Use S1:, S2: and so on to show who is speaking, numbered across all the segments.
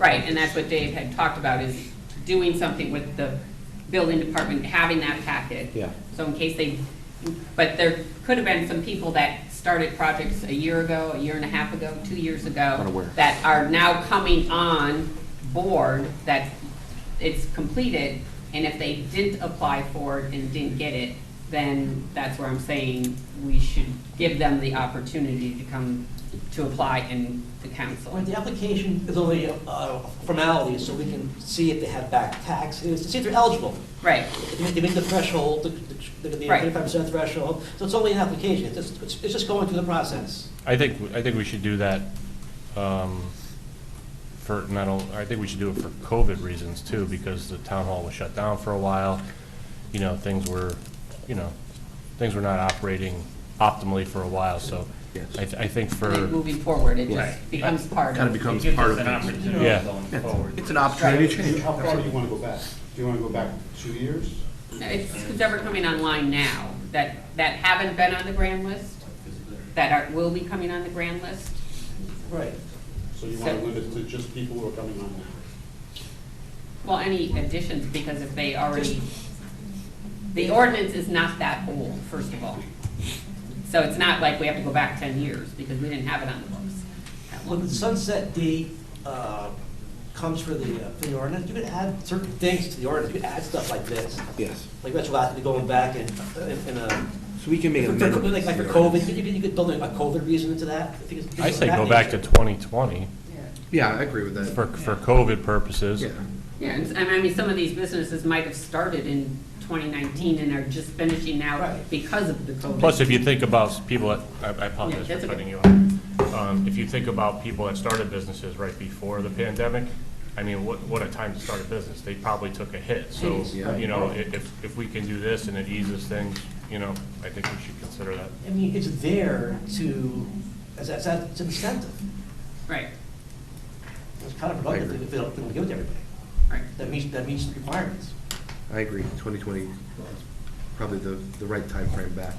S1: Right, and that's what Dave had talked about, is doing something with the building department, having that packet.
S2: Yeah.
S1: So in case they, but there could have been some people that started projects a year ago, a year and a half ago, two years ago.
S2: Unaware.
S1: That are now coming on board, that it's completed, and if they didn't apply for it and didn't get it, then that's where I'm saying we should give them the opportunity to come to apply in the council.
S3: Right, the application is only a a formality, so we can see if they have back taxes, to see if they're eligible.
S1: Right,
S3: They meet- They meet the threshold, the- the
S1: Right.
S3: thirty-five percent threshold, so it's only an application, it's just, it's- it's just going through the process.
S4: I think, I think we should do that um, for, not only, I think we should do it for COVID reasons too, because the town hall was shut down for a while. You know, things were, you know, things were not operating optimally for a while, so
S2: Yes.
S4: I, th- I think for,
S1: Like, moving forward, it
S2: Right.
S1: just becomes part
S2: Kind of
S1: of,
S2: becomes
S5: It gives
S2: part
S5: us
S2: of
S5: an
S2: it.
S5: opportunity
S4: Yeah.
S5: going forward.
S2: It's an opportunity to change.
S6: How far do you want to go back? Do you want to go back two years?
S1: it's whoever coming online now, that, that haven't been on the grand list, that are, will be coming on the grand list.
S3: Right.
S6: So you want to limit it to just people who are coming on now?
S1: Well, any additions, because if they already, the ordinance is not that old, first of all. So it's not like we have to go back ten years, because we didn't have it on the books. that
S3: When
S1: long.
S3: the sunset D uh, comes for the, uh, for the ordinance, you can add certain things to the ordinance, you can add stuff like this,
S2: Yes,
S3: like retroactively going back and, and, and, uh,
S2: so we can make
S3: for-
S2: an
S3: for-
S2: amendment.
S3: like, like for COVID, you could, you could build a COVID reason into that. I think it's-
S4: I say go back to 2020
S2: Yeah, I agree with that.
S4: for, for COVID purposes.
S2: Yeah,
S1: Yeah, and, and I mean, some of these businesses might have started in twenty nineteen and are just finishing now
S3: Right.
S1: because of the COVID.
S4: Plus, if you think about people that, I I apologize
S1: Yeah, that's
S4: for
S1: okay.
S4: cutting you off. Um, If you think about people that started businesses right before the pandemic, I mean, what, what a time to start a business. They probably took a hit. So,
S2: Yeah.
S4: you know, i- if, if we can do this and it eases things, you know, I think we should consider that.
S3: I mean, it's there to, as, as, as an incentive.
S1: Right,
S3: It's kind of
S2: I
S3: productive
S2: agree.
S3: if they don't, they don't give it to everybody.
S1: right.
S3: That meets, that meets the requirements.
S2: I agree, 2020 is probably the, the right time frame back,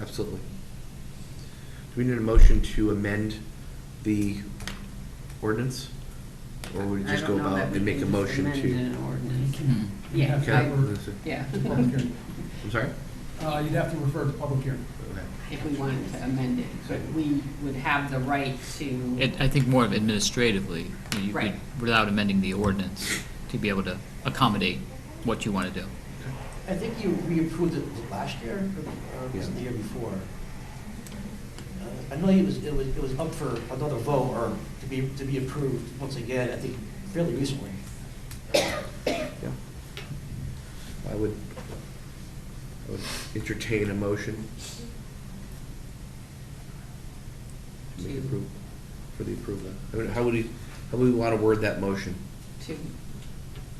S2: absolutely. Do we need a motion to amend the ordinance? Or would we
S1: I
S2: just go
S1: don't know that
S2: about
S1: we
S2: and make a
S1: can just
S2: motion
S1: amend
S2: to?
S1: an ordinance. Yeah,
S2: Okay,
S1: I- yeah,
S7: Public hearing.
S2: I'm sorry?
S7: Uh, You'd have to refer to public hearing.
S2: Okay.
S1: if we wanted to amend it, but we would have the right to,
S8: It, I think more of administratively, you
S1: Right.
S8: could, without amending the ordinance, to be able to accommodate what you want to do.
S3: I think you, we approved it was it last year or- or was it the year before? Uh, I know it was, it was, it was up for another vote or to be, to be approved once again, I think fairly recently.
S2: Yeah. I would, I would entertain a motion. Make approve, for the approval. I mean, how would we, how would we want to word that motion?
S1: to,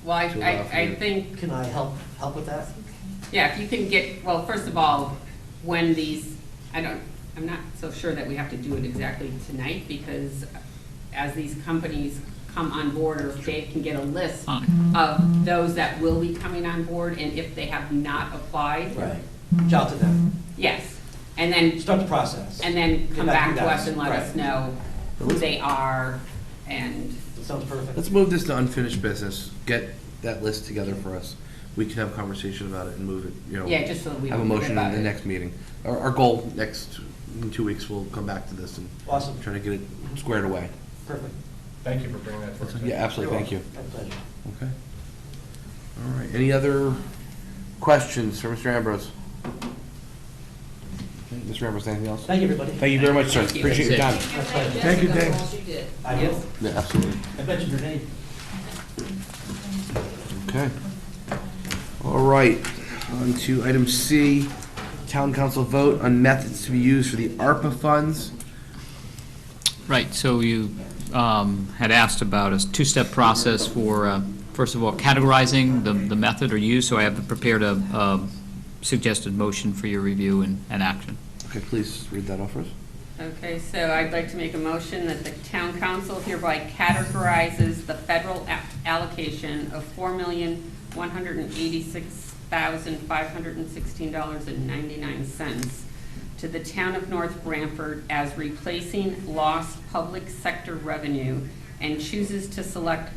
S1: well, I,
S2: To allow
S1: I,
S2: for
S1: I
S2: you.
S1: think,
S3: Can I help, help with that?
S1: yeah, if you can get, well, first of all, when these, I don't, I'm not so sure that we have to do it exactly tonight, because as these companies come on board, or if Dave can get a list
S8: Fine.
S1: of those that will be coming on board, and if they have not applied,
S3: Right. Reach out to them,
S1: yes. And then
S3: start the process.
S1: And then come back to us and let us
S3: Right.
S1: know who they are and,
S3: That Sounds perfect.
S2: Let's move this to unfinished business. Get that list together for us. We can have a conversation about it and move it, you know.
S1: yeah, just so that we
S2: Have a
S1: don't forget
S2: motion
S1: about
S2: in the
S1: it.
S2: next meeting. Our, our goal next, in two weeks, we'll come back to this and
S3: Awesome,
S2: try to get it squared away.
S3: perfect,
S4: Thank you for bringing that to our attention.
S2: Yeah, absolutely. Thank you.
S3: my pleasure.
S2: Okay. All right, any other questions for Mr. Ambrose? Okay, Mr. Ambrose, anything else?
S3: Thank you, everybody.
S2: Thank you very much, sir.
S1: Thank you.
S2: Appreciate your time.
S8: That's
S7: Thank you, Dave.
S3: I will,
S2: Yeah, absolutely.
S3: I mentioned your name.
S2: Okay. All right, on to item C, town council vote on methods to be used for the ARPA funds.
S8: Right, so you um, had asked about a two-step process for, uh, first of all, categorizing the the method or use, so I have prepared a um, suggested motion for your review and and action.
S2: Okay, please read that off for us.
S1: Okay, so I'd like to make a motion that the town council hereby categorizes the federal a- allocation of four million, one hundred and eighty-six thousand, five hundred and sixteen dollars and ninety-nine cents to the town of North Branford as replacing lost public sector revenue and chooses to select